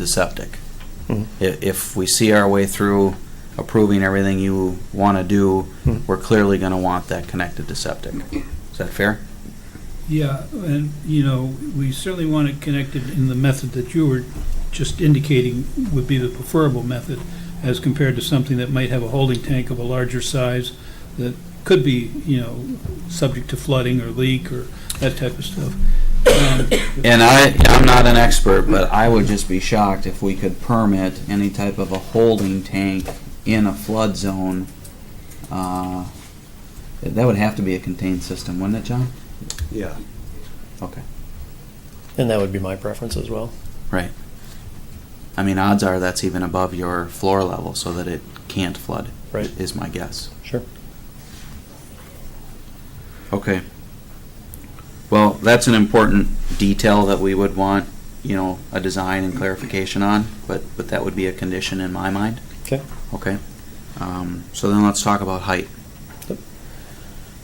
the septic. Mhm. If, if we see our way through approving everything you want to do, Mhm. we're clearly going to want that connected to septic. Is that fair? Yeah, and, you know, we certainly want it connected in the method that you were just indicating would be the preferable method as compared to something that might have a holding tank of a larger size that could be, you know, subject to flooding or leak or that type of stuff. Um, And I, I'm not an expert, but I would just be shocked if we could permit any type of a holding tank in a flood zone. Uh, That would have to be a contained system, wouldn't it, John? Yeah. Okay. And that would be my preference as well. Right. I mean, odds are that's even above your floor level so that it can't flood. Right. Is my guess. Sure. Okay. Well, that's an important detail that we would want, you know, a design and clarification on, but, but that would be a condition in my mind, Okay. okay? Um, so then let's talk about height. Yep.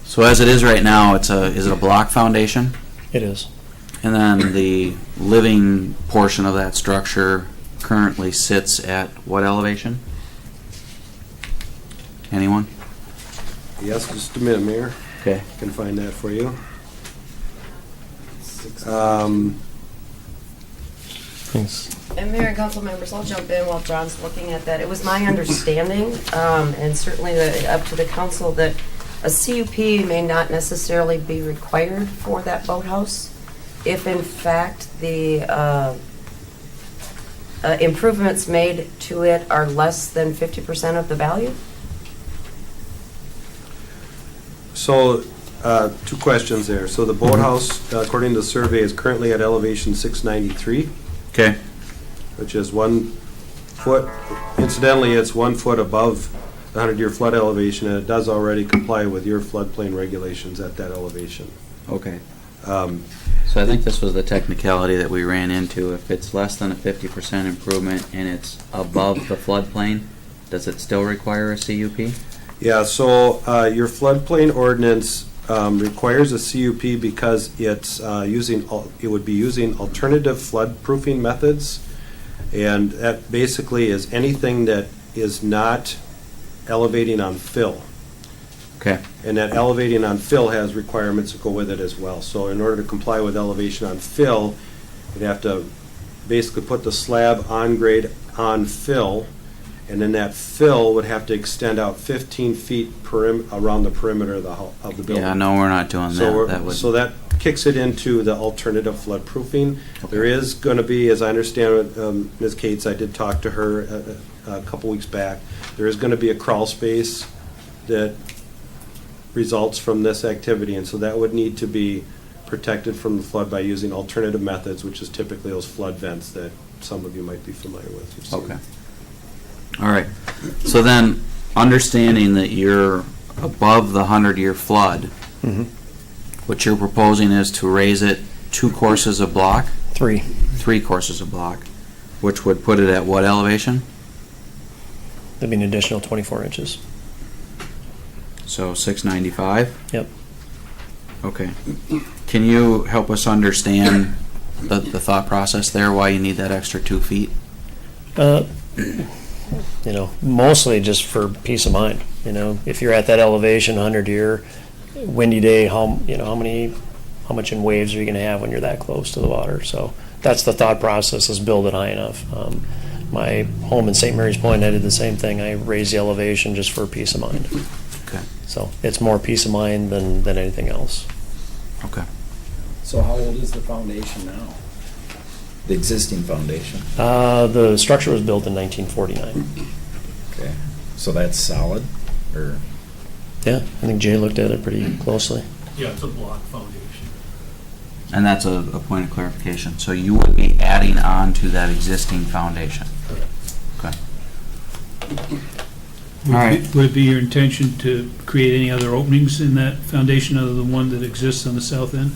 So as it is right now, it's a, is it a block foundation? It is. And then the living portion of that structure currently sits at what elevation? Anyone? Yes, just a minute, Mayor. Okay. Can find that for you. Um, Thanks. And Mayor and council members, I'll jump in while John's looking at that. It was my understanding, um, and certainly the- up to the council, that a CUP may not necessarily be required for that boathouse if in fact the uh, uh, improvements made to it are less than 50% of the value? So, uh, two questions there. So the boathouse, according to the survey, is currently at elevation 693, Okay. which is one foot, incidentally, it's one foot above the 100-year flood elevation, and it does already comply with your floodplain regulations at that elevation. Okay. Um, So I think this was the technicality that we ran into. If it's less than a fifty percent improvement and it's above the floodplain, does it still require a CUP? Yeah, so uh, your floodplain ordinance um, requires a CUP because it's uh, using, al- it would be using alternative flood proofing methods. And that basically is anything that is not elevating on fill. Okay. And that elevating on fill has requirements that go with it as well. So in order to comply with elevation on fill, you'd have to basically put the slab on grade on fill, and then that fill would have to extend out 15 feet perim, around the perimeter of the, hou- of the building. Yeah, no, we're not doing So that. That we're, would. so that kicks it into the alternative flood proofing. There is going to be, as I understand it, um, Ms. Cates, I did talk to her uh, a- a a couple weeks back, there is going to be a crawl space that results from this activity, and so that would need to be protected from the flood by using alternative methods, which is typically those flood vents that some of you might be familiar with. You've seen. Okay. All right. So then, understanding that you're above the hundred-year flood, Mhm. what you're proposing is to raise it two courses a block, Three. three courses a block, which would put it at what elevation? That'd be an additional 24 inches. So six ninety-five? Yep. Okay. Can you help us understand the, the thought process there, why you need that extra two feet? Uh, you know, mostly just for peace of mind. You know, if you're at that elevation, 100 year, windy day, how you know how many, how much in waves are you going to have when you're that close to the water? So that's the thought process: is build it high enough. Um, my home in St. Mary's Point, I did the same thing. I raised the elevation just for peace of mind. Okay. So it's more peace of mind than than anything else. Okay. So how old is the foundation now? The existing foundation? Uh, the structure was built in 1949. Okay. So that's solid, or? Yeah, I think Jay looked at it pretty closely. Yeah, it's a block foundation. And that's a, a point of clarification. So you would be adding on to that existing foundation? Okay. All Would it right. be- would it be your intention to create any other openings in that foundation other than one that exists on the south end?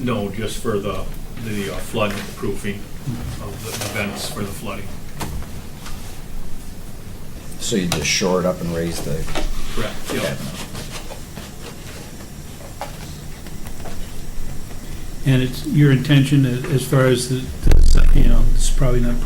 No, just for the, the uh, flood proofing of the vents for the flooding. So you just shore it up and raise the Correct. Yeah. cabinet? And it's your intention a- as far as the, the- you know, it's probably not perfect